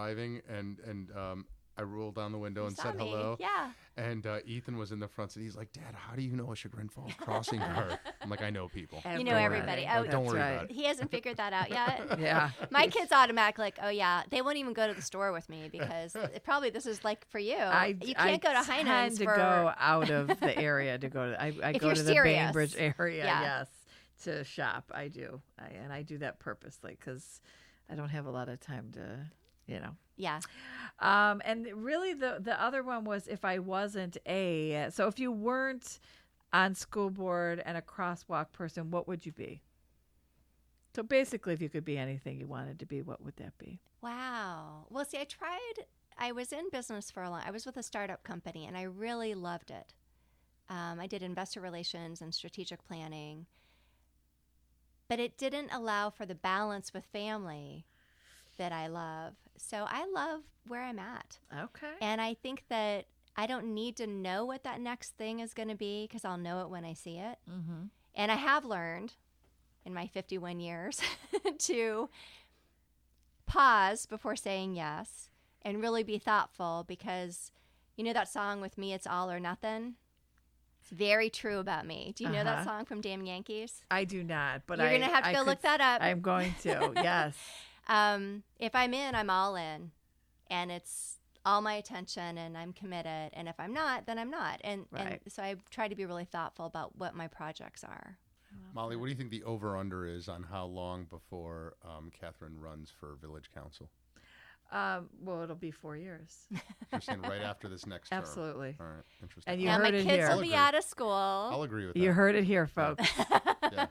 driving, and and um, I rolled down the window and saw said me. hello. Yeah. And uh, Ethan was in the front seat. He's like, Dad, how do you know a Chagrin Falls crossing guard? I'm like, I know people. You know everybody. Oh, Don't worry That's about he hasn't figured that out yet. Yeah. My kids automatic like, oh yeah, they won't even go to the store with me because it- probably this is like for you. I, you I can't go to Heinen's tend to for go out of the area to go to. I, I If go you're to the serious. Bainbridge area. Yeah. Yes, to shop. I do, I, and I do that purposely because I don't have a lot of time to, you know. yeah. Um, and really, the the other one was if I wasn't a so if you weren't on school board and a crosswalk person, what would you be? So basically, if you could be anything you wanted to be, what would that be? Wow. Well, see, I tried. I was in business for a long. I was with a startup company, and I really loved it. Um, I did investor relations and strategic planning, but it didn't allow for the balance with family that I love. So I love where I'm at. Okay. And I think that I don't need to know what that next thing is going to be because I'll know it when I see it. Mm-hmm. And I have learned in my 51 years to pause before saying yes and really be thoughtful because you know that song with me, It's All or Nothing? It's very true about me. Do you know that Uh-huh. song from Damn Yankees? I do not, but You're I, going to have to I go could look that up. I'm going to. Yes. um, if I'm in, I'm all in, and it's all my attention, and I'm committed. And if I'm not, then I'm not. And, Right. and so I try to be really thoughtful about what my projects are. Molly, what do you think the over under is on how long before um, Catherine runs for village council? Um, well, it'll be four years. You're saying right after this next term. Absolutely. All right. Interesting. And you now my heard it kids here. will I'll be agree. out of school, I'll agree with that. You heard it here, folks. Yeah.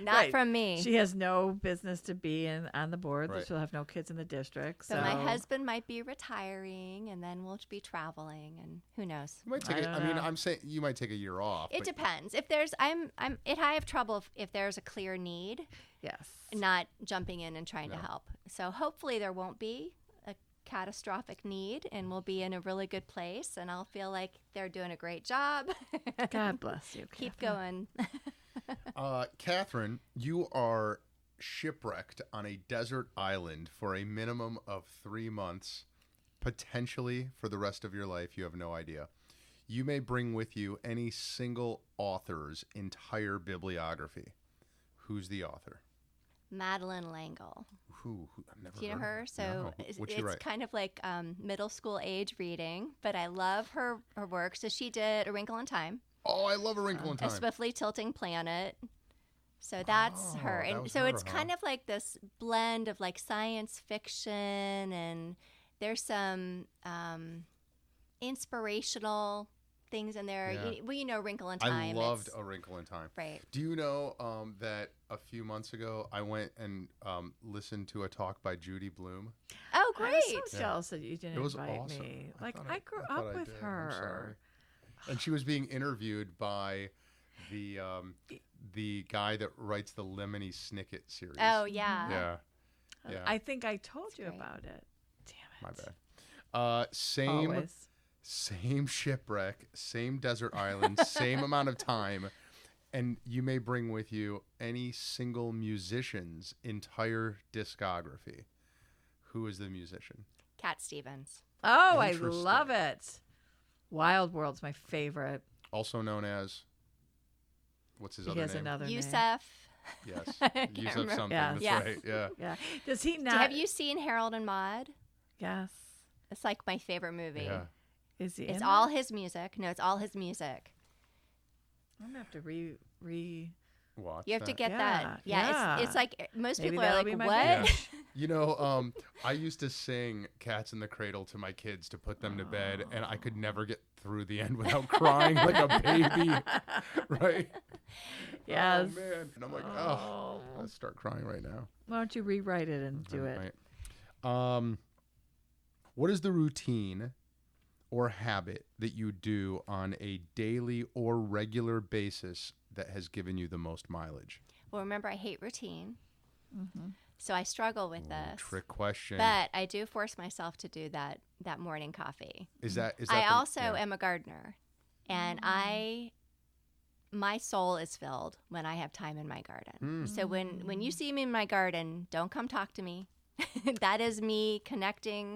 not Right. from me. She has no business to be in on the board. Right. She'll have no kids in the district. but so my husband might be retiring, and then we'll be traveling, and who knows? You might take. I a- I don't mean, know. I'm saying you might take a year off. It but depends. If there's, I'm, I'm, it. I have trouble if, if there's a clear need, yes, not jumping in and trying to No. help. So hopefully there won't be a catastrophic need and we'll be in a really good place and I'll feel like they're doing a great job. God bless you. Keep Catherine. going. Uh, Catherine, you are shipwrecked on a desert island for a minimum of three months, potentially for the rest of your life. You have no idea. You may bring with you any single author's entire bibliography. Who's the author? Madeline Langle. Who? who I've never Do you know heard of her? So No. it's, What'd she it's write? kind of like um, middle school age reading, but I love her, her work. So she did A Wrinkle in Time, Oh, I love A Wrinkle in A Time. Swiftly Tilting Planet. So that's her. Oh, that And was so her, it's huh? kind of like this blend of like science fiction and there's some um, inspirational things in there. Yeah. You, well, you know, Wrinkle in Time. I loved oh. it's- A Wrinkle in Time. Right. Do you know um, that a few months ago I went and um, listened to a talk by Judy Bloom? Oh, I great. was so Yeah. jealous that you didn't It was invite awesome. me. Like thought I, grew thought up I with did. I'm her. sorry. And she was being interviewed by the um, the guy that writes the Lemony Snicket series. Oh, yeah. Mm-hmm. yeah, Yeah. Uh, I think I told you great. about it. Damn it. my bad. Uh, same Always. same shipwreck, same desert island, same amount of time, and you may bring with you any single musician's entire discography. Who is the musician? Cat Stevens. Oh, I Interesting. love it. Wild World's my favorite. also known as what's his He other has name? another name. Yusef. Yes, I can't use up remember. something. Yeah. That's Yeah. right. Yeah. Yeah. Does he Do- not? Have you seen Harold and Maude? Yes. It's like my favorite movie. Yeah. Is he? It's in all it? his music. No, it's all his music. I'm gonna have to re re. Watch. You have to that. get Yeah, that. Yeah, It's, it's yeah. like most Maybe people are that'll like, be my "What?" Yeah. You know, um, I used to sing "Cats in the Cradle" to my kids to put them to bed, and I could never get through the end without crying like a baby, right? Yes. Oh man, and I'm like, oh, I start crying right now. Why don't you rewrite it and do it? Right. Um, what is the routine or habit that you do on a daily or regular basis that has given you the most mileage? Well, remember, I hate routine, Mm-hmm. so I struggle with this. Trick question. But I do force myself to do that that morning coffee. is that is that? I the- also yeah. am a gardener, and I my soul is Hmm. Mm. filled when I have time in my garden. So when when you see me in my garden, don't come talk to me. that is me connecting